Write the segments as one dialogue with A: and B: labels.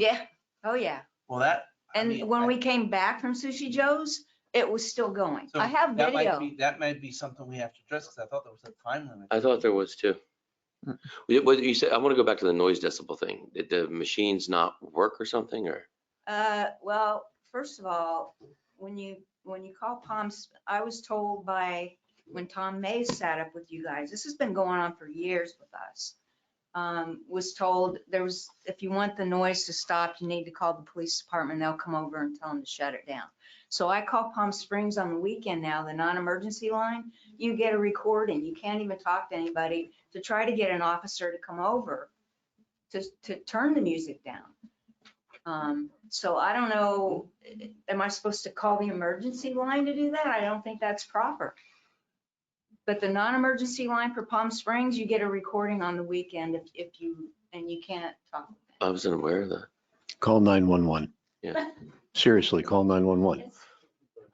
A: Yeah, oh yeah.
B: Well, that. I
A: And
B: mean,
A: when
B: I-
A: we came back from Sushi Joe's, it was still going.
B: so
A: I have
B: that might
A: video.
B: be- That might be something we have to address, because I thought there was a time limit.
C: I thought there was too.
D: Hmm.
E: Mm.
C: Wait, What you said, I want to go back to the noise decibel thing. Did the machines not work or something or?
A: Uh, well, first of all, when you, when you call Palms, I was told by, when Tom Mays sat up with you guys, this has been going on for years with us. Um, was told there was, if you want the noise to stop, you need to call the police department. They'll come over and tell them to shut it down. So I call Palm Springs on the weekend now, the non-emergency line. You get a recording. You can't even talk to anybody to try to get an officer to come over to, to turn the music down. Um, so I don't know, am I supposed to call the emergency line to do that? I don't think that's proper. But the non-emergency line for Palm Springs, you get a recording on the weekend if, if you, and you can't talk.
C: I wasn't aware of that.
E: Call 911.
C: Yeah.
E: Seriously, call 911.
A: It's-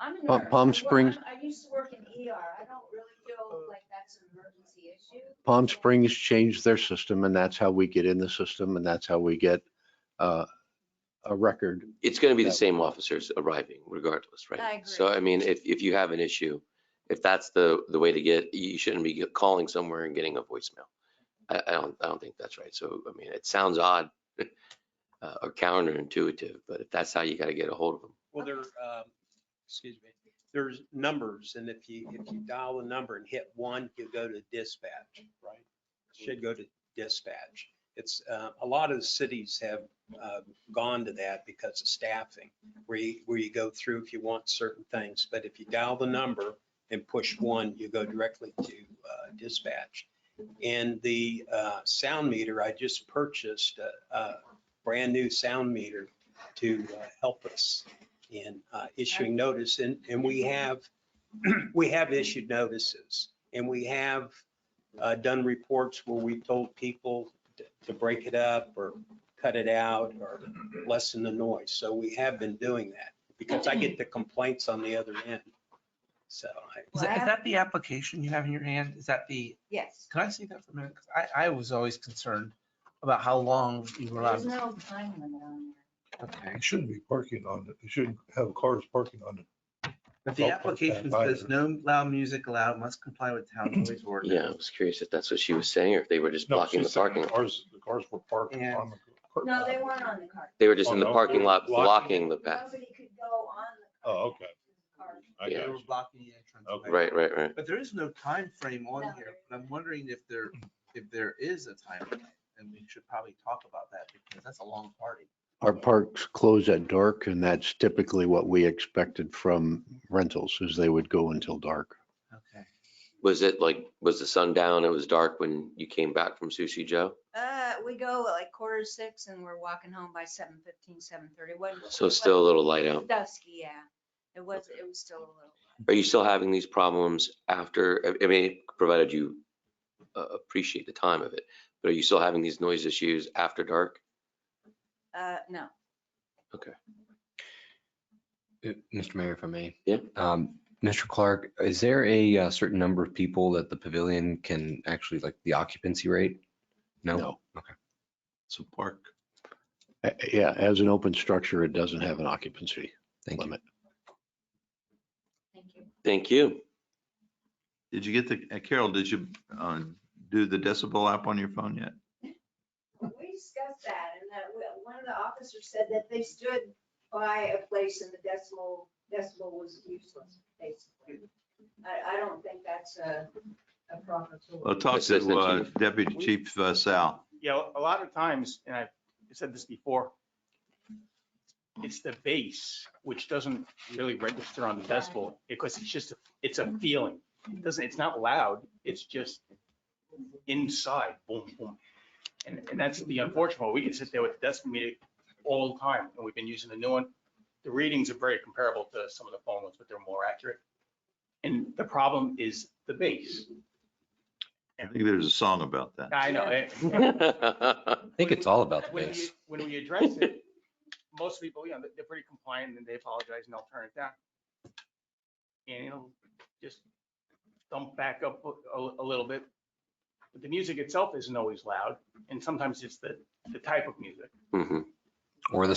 A: I'm a
E: Pa-
A: nurse.
E: Palm
A: I work-
E: Springs-
A: I used to work in ER. I don't really feel like that's an emergency issue.
E: Palm Springs changed their system and that's how we get in the system and that's how we get uh, a record.
C: It's going to be the
E: Yeah.
C: same officers arriving regardless, right?
A: I agree.
C: So I mean, if, if you have an issue, if that's the, the way to get, you shouldn't be calling somewhere and getting a voicemail. I, I don't, I don't think that's right. So, I mean, it sounds odd uh, or counterintuitive, but if that's how you got to get a hold of them.
F: Well, there, um, excuse me, there's numbers and if you, if you dial the number and hit one, you go to dispatch, right? Should go to dispatch. It's, uh, a lot of the cities have, uh, gone to that because of staffing, where you, where you go through if you want certain things. But if you dial the number and push one, you go directly to, uh, dispatch. And the, uh, sound meter, I just purchased a, a brand new sound meter to uh, help us in uh, issuing notice. And, and we have, we have issued notices and we have uh, done reports where we told people t- to break it up or cut it out or lessen the noise. So we have been doing that because I get the complaints on the other end. So I,
B: Is that, is that the application you have in your hand? Is that the,
A: Yes.
B: can I see that for a minute? 'Cause I, I was always concerned about how long you were
A: There's
B: allowed.
A: no time limit on
B: Okay.
D: It shouldn't be parking on it. They shouldn't have cars parking on it.
B: But the application says no loud music allowed, must comply with town noise
C: Yeah, I
B: ordinance.
C: was curious if that's what she was saying or if they were just
D: No,
C: blocking the
D: she's saying
C: parking. lot.
D: Cars, the cars were parked
B: And-
D: on the.
A: there.
D: car-
A: No, they weren't on the cart.
C: They were just in
D: Oh,
C: the
D: no,
C: parking
D: they're
C: lot blocking
D: blocking
C: the path.
A: Nobody could go on the.
D: Oh,
A: cart.
D: okay.
A: Cart.
D: I
C: Yeah.
B: They
D: got
B: were
D: you.
B: blocking the entrance.
D: Okay.
B: way.
C: Right, right, right.
B: But there is no time frame on
A: No.
B: here, but I'm wondering if there, if there is a time, frame, and we should probably talk about that because that's a long party.
E: Our parks close at dark and that's typically what we expected from rentals is they would go until dark.
B: Okay.
C: Was it like, was the sun down? It was dark when you came back from Sushi Joe?
A: Uh, we go at like quarter to six and we're walking home by seven fifteen, seven thirty. Wasn't.
C: So it's still a little light out.
A: Dusky, yeah. It was, it was still a little.
C: Are you still having these problems after, I- I mean, provided you uh, appreciate the time of it, but are you still having these noise issues after dark?
A: Uh, no.
G: Uh, Mr. Mayor, if I may.
C: Yeah.
G: Um, Mr. Clark, is there a uh, certain number of people that the pavilion can actually, like, the occupancy rate? No?
E: No.
G: So park.
E: Uh, Yeah, as an open structure, it doesn't have an occupancy
G: Thank you.
E: limit.
A: Thank you.
C: Thank you.
H: Did you get the, uh, Carol, did you uh, do the decibel app on your phone yet?
A: We discussed that and that we- one of the officers said that they stood by a place and the decimal, decimal was useless, basically. I, I don't think that's a, a proper tool.
H: Well, talk to
C: Assistant
H: uh,
C: Chief.
H: Deputy Chief uh, Sal.
I: Yeah, a lot of times, and I've said this before, it's the bass, which doesn't really register on the decibel, because it's just, it's a feeling. It doesn't, it's not loud, it's just inside, boom, boom. And, and that's the unfortunate, part. we can sit there with the decibel meter all the time, and we've been using the new one. The readings are very comparable to some of the phone ones, but they're more accurate. And the problem is the bass.
H: I think there's a song about that.
I: I know. eh?
G: I think it's all about the
I: When
G: base.
I: we, when we address it, most people, you know, they're pretty compliant and they apologize and they'll turn it down. And it'll just dump back up a, a little bit. But the music itself isn't always loud and sometimes it's the, the type of music.
C: Mhm.
G: or the